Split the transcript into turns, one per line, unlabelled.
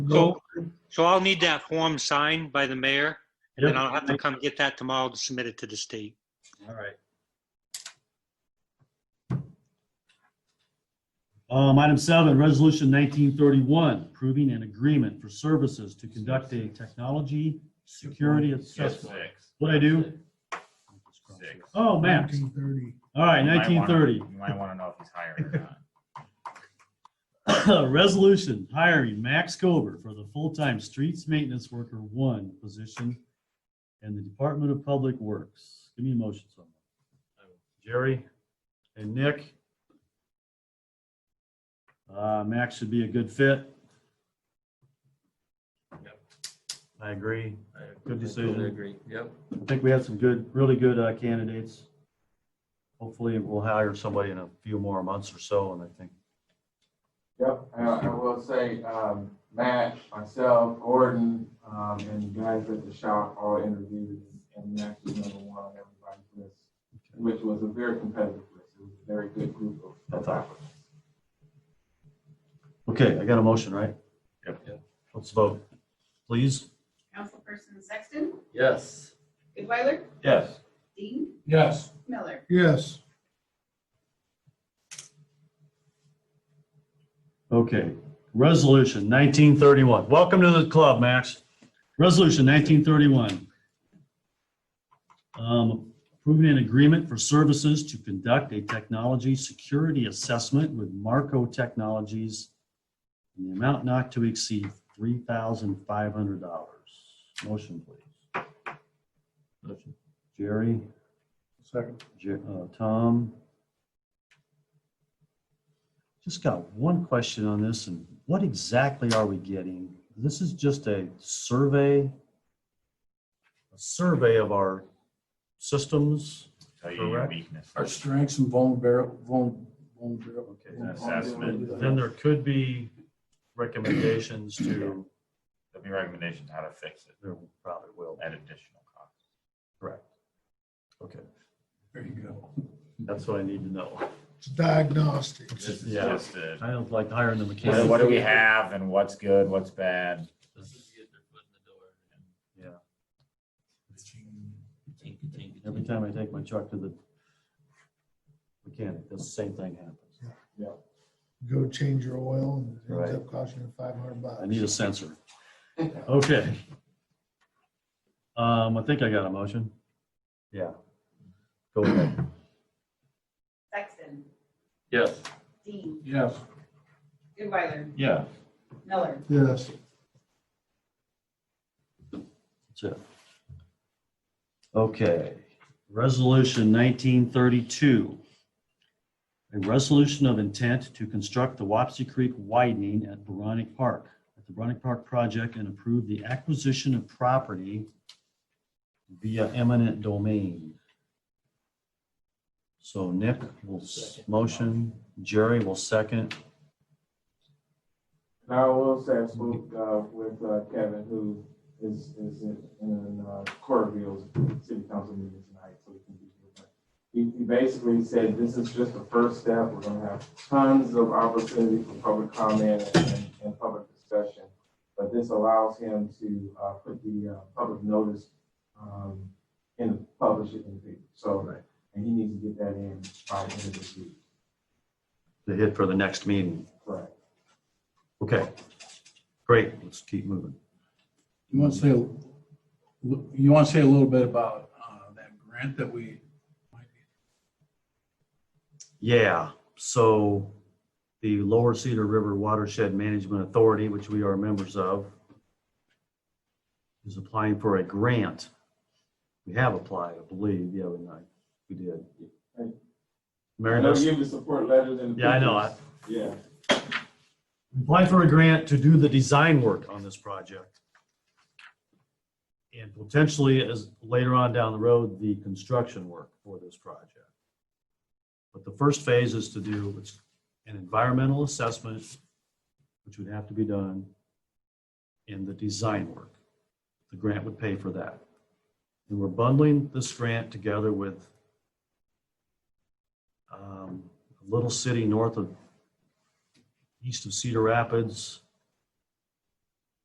So, so I'll need that form signed by the mayor, and then I'll have to come get that tomorrow to submit it to the state.
All right. Um, item seven, resolution nineteen thirty-one, approving an agreement for services to conduct a technology security assessment. What'd I do?
Six.
Oh, Max.
1930.
All right,
You might wanna-
nineteen thirty.
You might want to know if he's hiring or not.
Resolution hiring Max Gober for the full-time streets maintenance worker one position in the Department of Public Works. Give me a motion, someone. Jerry and Nick. Uh, Max should be a good fit.
Yep.
I agree.
I
Good decision.
totally agree. Yep.
I think we had some good, really good uh, candidates. Hopefully, we'll hire somebody in a few more months or so, and I think
Yep, I, I will say, um, Matt, myself, Gordon, um, and the guys at the shop all interviewed and Matt was number one on everybody's list, which was a very competitive list. It was a very good group of- of applicants.
Okay, I got a motion, right?
Yep.
Yep.
Let's vote, please.
Councilperson Sexton,
Yes.
Goodweiler,
Yes.
Dean,
Yes.
Miller.
Yes,
Okay, resolution nineteen thirty-one. Welcome to the club, Max. Resolution nineteen thirty-one. Um, approving an agreement for services to conduct a technology security assessment with Marco Technologies in the amount not to exceed three thousand five hundred dollars. Motion, please.
Motion.
Jerry?
second.
J- uh, Tom? Just got one question on this, and what exactly are we getting? This is just a survey, a survey of our systems.
Tell you your
Correct.
weakness.
Our strengths and vulnerable, vulnerable.
Okay.
An assessment.
Then there could be recommendations to,
There'll be recommendations how to fix it
there probably will,
at additional cost.
correct? Okay,
There you go.
that's what I need to know.
It's diagnostics.
This is
Yeah.
just a-
I don't like hiring the
what
mechanic.
what do we have and what's good, what's bad?
This is getting their foot in the door.
Yeah.
Tink, tink,
Every
tink.
time I take my truck to the mechanic, the same thing happens.
Go change your oil and it ends
Right.
up costing you five hundred bucks.
I need a sensor. Okay. Um, I think I got a motion. Yeah. Go ahead.
Sexton,
Yes.
Dean,
Yes.
Goodweiler,
Yeah.
Miller.
Yes,
That's it. Okay, resolution nineteen thirty-two. A resolution of intent to construct the Wapsie Creek widening at Veronic Park, at the Veronic Park project and approve the acquisition of property via eminent domain. So Nick will s- motion, Jerry will second.
And I will say, I spoke, uh, with, uh, Kevin, who is, is in, in, uh, Corville's city council meeting tonight, so we can be here. But He, he basically said, this is just the first step, we're gonna have tons of opportunity for public comment and, and public discussion. But this allows him to, uh, put the, uh, public notice, um, in, publish it in the paper, so.
Right.
And he needs to get that in by the end of this week,
The hit for the next meeting.
correct?
Okay, great, let's keep moving.
You want to say, you want to say a little bit about uh, that grant that we might be
Yeah, so the Lower Cedar River Watershed Management Authority, which we are members of, is applying for a grant. We have applied, I believe, yeah, we, we did.
I
Mary
know
Beth,
you the support letters and. the
Yeah, I know. I-
pictures. Yeah.
applied for a grant to do the design work on this project. And potentially as later on down the road, the construction work for this project. But the first phase is to do it's an environmental assessment, which would have to be done in the design work. The grant would pay for that. And we're bundling this grant together with um, a little city north of east of Cedar Rapids